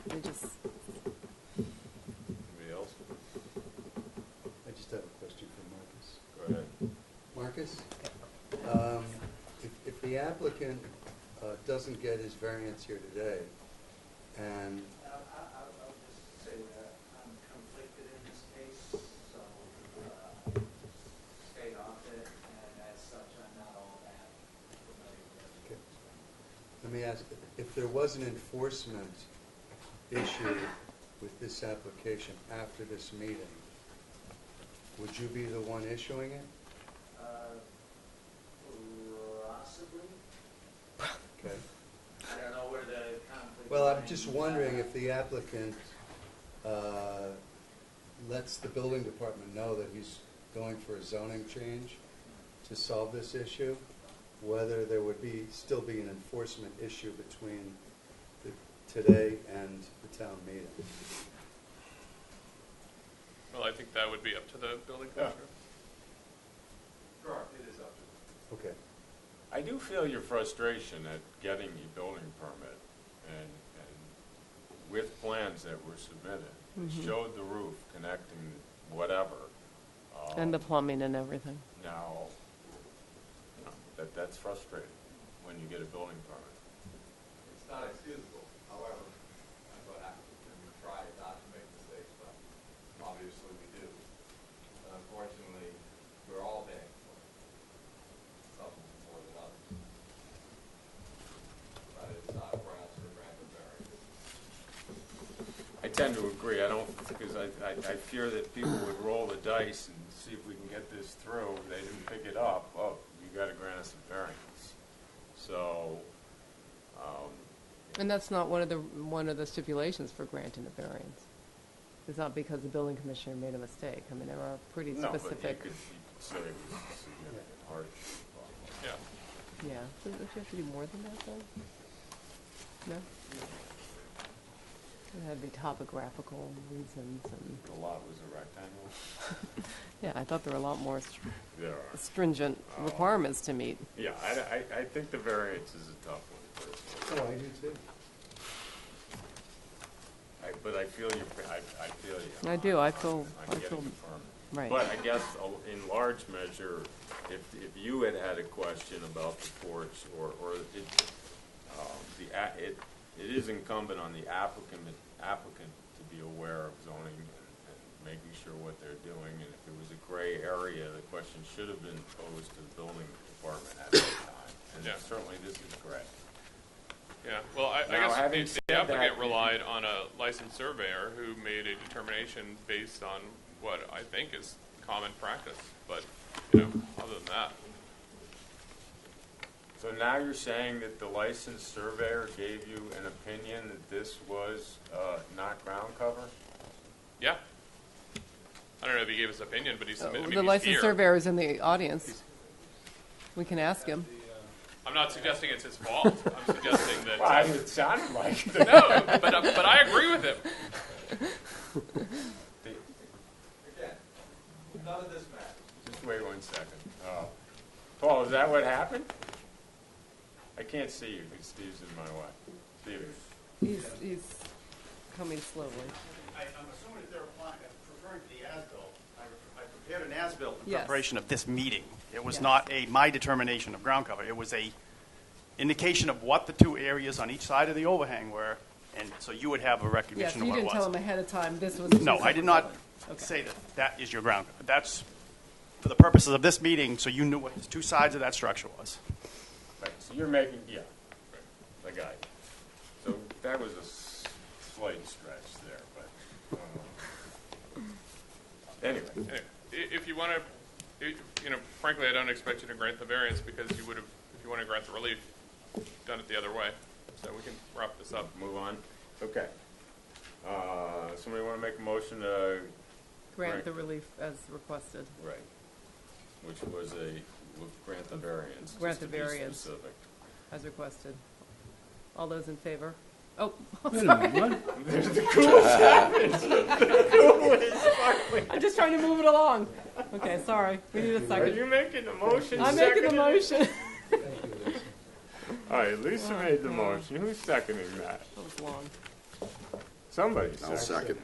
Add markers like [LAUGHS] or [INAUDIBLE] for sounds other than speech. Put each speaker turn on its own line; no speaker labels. we just,
Anybody else?
I just have a question for
Go ahead.
Marcus. Marcus, um, if, if the applicant, uh, doesn't get his variance here today, and,
I- I- I'll I'll just say that I'm conflicted in this case, so uh, stay off it, and as such, I'm not all that familiar with
Okay.
it.
let me ask, if there was an enforcement issue with this application after this meeting, would you be the one issuing it?
Uh, Possibly,
Okay.
I don't know where the conflict.
Well, I'm just
lines
wondering
are.
if the applicant uh, lets the building department know that he's going for a zoning change to solve this issue, whether there would be, still be an enforcement issue between the- today and the town meeting.
Well, I think that would be up to the building commissioner.
Correct, it is up to
Okay.
I do feel your frustration at getting the building permit and, and with plans that were submitted. It
Mhm.
showed the roof connecting whatever. um,
and the plumbing and everything.
Now, you know, that, that's frustrating when you get a building permit.
It's not excusable, however, I'm going to, we try not to make mistakes, but obviously we do. And Unfortunately, we're all paying for it, some more than others. But it's not grounds for random variance.
I tend to agree, I don't, because I, I, I fear that people would roll the dice and see if we can get this through, they didn't pick it up, oh, you gotta grant us a variance. So, um,
And that's not one of the, one of the stipulations for granting a variance. It's not because the building commissioner made a mistake. I mean, there are pretty
no, but you could, you
specific,
could say it was a significant hardship.
Yeah.
yeah. Don't you have to do more than that, though? No? It had to be topographical reasons and,
The lot was a rectangle?
yeah, I thought there were a lot more str-
There are.
stringent
Oh.
requirements to meet.
Yeah, I, I, I think the variance is a tough one, personally.
Oh, I do too.
I, but I feel you, I, I feel you.
I do. I
on-
feel-
on
I feel-
getting the permit.
Right.
But I guess a- in large measure, if, if you had had a question about the porch or, or it, um, the, a- it, it is incumbent on the applicant, applicant to be aware of zoning and, and making sure what they're doing. And if there was a gray area, the question should have been posed to the building department at that time. And
Yeah.
certainly this is correct.
Yeah, well, I,
Now,
I
having
guess the-
said
the applicant
that-
relied on a licensed surveyor who made a determination based on what I think is common practice, but, you know, other than that,
So now you're saying that the licensed surveyor gave you an opinion that this was, uh, not ground cover?
yeah. I don't know if he gave his opinion, but he submitted,
Uh,
I
The
mean, he's
licensed
here.
surveyor is in the audience. We can ask him.
I'm not suggesting it's his fault,
[LAUGHS]
I'm suggesting that,
Well,
uh,
it sounded like it.
no, but, uh, but I agree with him.
Again, none of this matters.
Just wait one second. Oh. Paul, is that what happened? I can't see you, because Steve's in my way. Steve,
He's, he's coming slowly.
I- I'm assuming that they're applying, referring to the as-built. I I prepared an as-built in
Yes.
preparation of this meeting. It was
Yes.
not a, my determination of ground cover. It was a indication of what the two areas on each side of the overhang were, and so you would have a
Yes,
recognition of
you
what it
didn't tell
was.
him ahead of time this was.
No, I did not
Okay.
say that that is your ground. cover. That's for the purposes of this meeting, so you knew what the two sides of that structure was.
right, so you're making, yeah, right, I got you. So that was a s- slight stretch there, but, uh, anyway.
Anyway, i- If you want to, you know, frankly, I don't expect you to grant the variance because you would have, if you want to grant the relief, done it the other way. So we can wrap this up.
Move on. Okay. Uh, somebody want to make a motion to,
Grant the relief as requested.
right, which was a, would grant the variance.
Grant
just
the
to be
variance.
Specific.
As requested. All those in favor? Oh, [LAUGHS]
[LAUGHS]
I'm just trying to move it along. Okay, sorry. We need a
Are
second.
you making a motion?
I'm making a [LAUGHS]
seconded?
motion.
Thank you, Lisa.
All right, Lisa made the motion. Who's seconding that?
That was long.
Somebody's
I'll second.